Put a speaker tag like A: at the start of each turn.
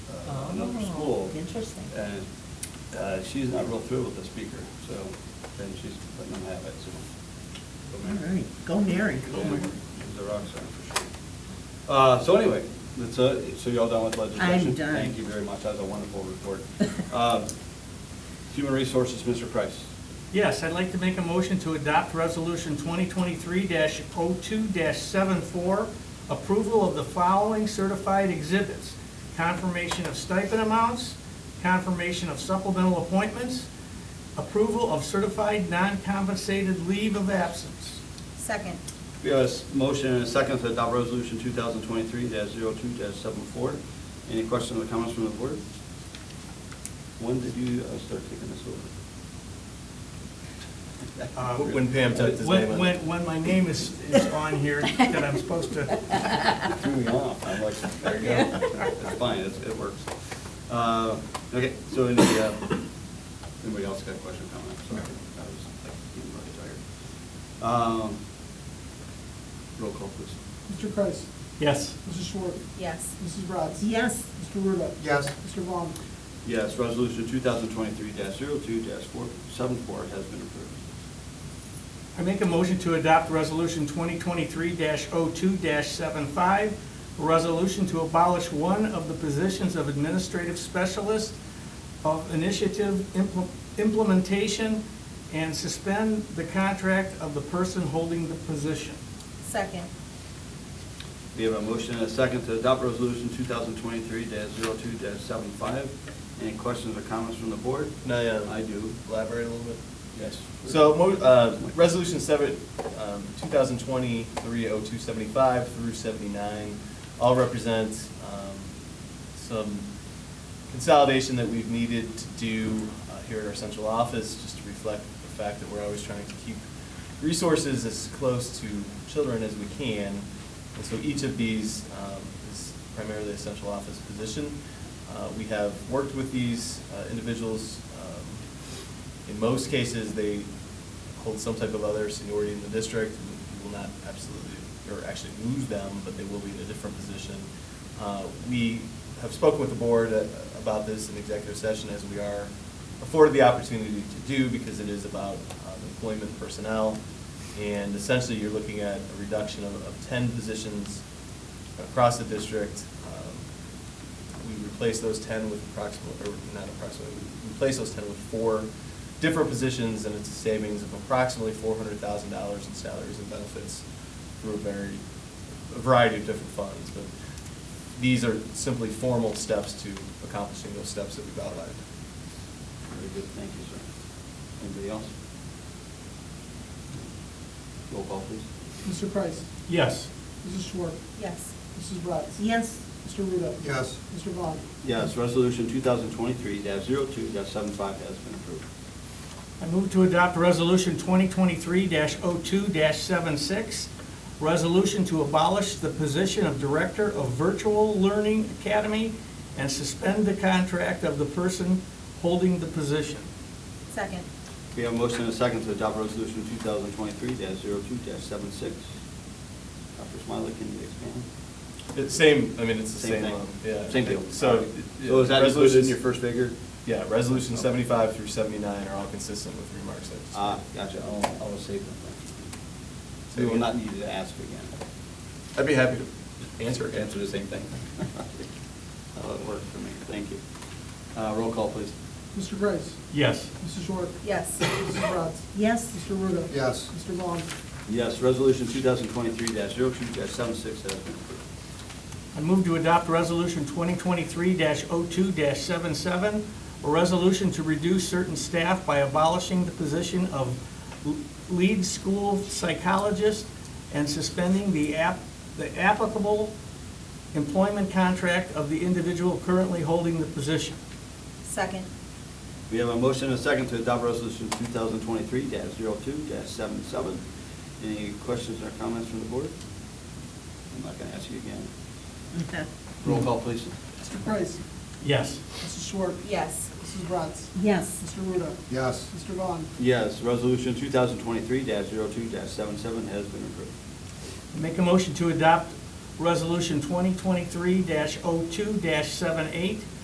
A: Oh. Interesting.
B: uh, And uh, she's not real thrilled with the speaker, so then she's letting them have it, so. go
A: All
B: Mary.
A: right, go Mary.
B: Go Mary. She's a rock star for sure. Uh, So anyway, that's, uh, so you all done with legislation?
A: I'm done.
B: Thank you very much, that was a wonderful report. Um, Human Resources, Mr. Price.
C: Yes, I'd like to make a motion to adopt Resolution 2023-02-74, approval of the following certified exhibits: confirmation of stipend amounts, confirmation of supplemental appointments, approval of certified non-compensated leave of absence.
D: Second.
B: We have a s- motion and a second to adopt resolution 2023-02-74. Any questions or comments from the board? When did you uh, start taking this
C: Uh,
B: over?
E: When Pam typed his
C: When-
E: name in.
C: When, when my name is, is on here, that I'm supposed to,
B: Threw me off. I'm like, there you go. It's fine, it's- it works. Uh, Okay, so any, uh, anybody else got a question, or comment? Sorry, I was like, getting really tired. Um, Roll call, please.
F: Mr. Kreis.
C: yes.
F: Mrs. Short.
D: Yes.
F: Mrs. Bratz.
A: Yes,
F: Mr. Ruda.
E: Yes.
F: Mr. Vaughn.
B: Yes, resolution 2023-02-474 has been approved.
C: I make a motion to adopt Resolution 2023-02-75, a resolution to abolish one of the positions of Administrative Specialist of Initiative Impl- Implementation and suspend the contract of the person holding the position.
D: Second.
B: We have a motion and a second to adopt resolution 2023-02-75. Any questions or comments from the board?
E: No,
F: Um,
E: yeah.
B: I do.
E: Elaborate a little bit.
B: Yes.
E: So, mo- uh, Resolution 7, um, 2023-0275 through 79, all represent um, some consolidation that we've needed to do uh, here at our central office, just to reflect the fact that we're always trying to keep resources as close to children as we can. And so each of these um, is primarily a central office position. Uh, We have worked with these uh, individuals um, in most cases, they hold some type of other seniority in the district, and we will not absolutely, or actually lose them, but they will be in a different position. Uh, We have spoken with the board uh, about this in executive session, as we are afforded the opportunity to do, because it is about um, employment personnel. And essentially, you're looking at a reduction of of 10 positions across the district. Um, we replace those ten with approximately, or not approximately, we replace those ten with four different positions, and it's a savings of approximately four hundred thousand dollars in salaries and benefits through a very, a variety of different funds, but these are simply formal steps to accomplishing those steps that we've outlined.
B: Very good, thank you, sir. Anybody else? Roll call, please.
F: Mr. Kreis.
C: Yes.
F: Mrs. Short.
D: Yes.
F: Mrs. Bratz.
A: yes,
F: Mr. Ruda.
E: Yes.
F: Mr. Vaughn.
B: Yes, resolution 2023-02-75 has been approved.
C: I move to adopt Resolution 2023-02-76, resolution to abolish the position of Director of Virtual Learning Academy and suspend the contract of the person holding the position.
D: Second.
B: We have a motion and a second to adopt resolution 2023-02-76. Dr. Smiley, can you expand?
E: It's same, I mean, it's the
B: Same
E: same,
B: thing.
E: um, yeah.
B: Same deal.
E: So.
B: So is that included in
E: resolutions-
B: your first figure?
E: Yeah, resolution seventy-five through seventy-nine are all consistent with remarks that. I just-
B: Ah, gotcha, I'll, I'll save them. We will not need to ask again.
E: I'd be happy to answer. it.
B: Answer the same thing. That'll work for me, thank you. Uh, Roll call, please.
F: Mr. Kreis.
C: Yes.
F: Mrs. Short.
D: Yes.
F: Mrs. Bratz.
A: yes,
F: Mr. Ruda.
E: Yes.
F: Mr. Vaughn.
B: Yes, resolution 2023-02-76 has been approved.
C: I move to adopt Resolution 2023-02-77, a resolution to reduce certain staff by abolishing the position of l- lead school psychologist and suspending the app, the applicable employment contract of the individual currently holding the position.
D: Second.
B: We have a motion and a second to adopt resolution 2023-02-77. Any questions or comments from the board? I'm not going to ask you again. Roll call, please.
F: Mr. Kreis.
C: Yes.
F: Mrs. Short.
D: Yes.
F: Mrs. Bratz.
A: yes,
F: Mr. Ruda.
E: Yes.
F: Mr. Vaughn.
B: Yes, resolution 2023-02-77 has been approved.
C: Make a oh motion to adopt Resolution 2023-02-78,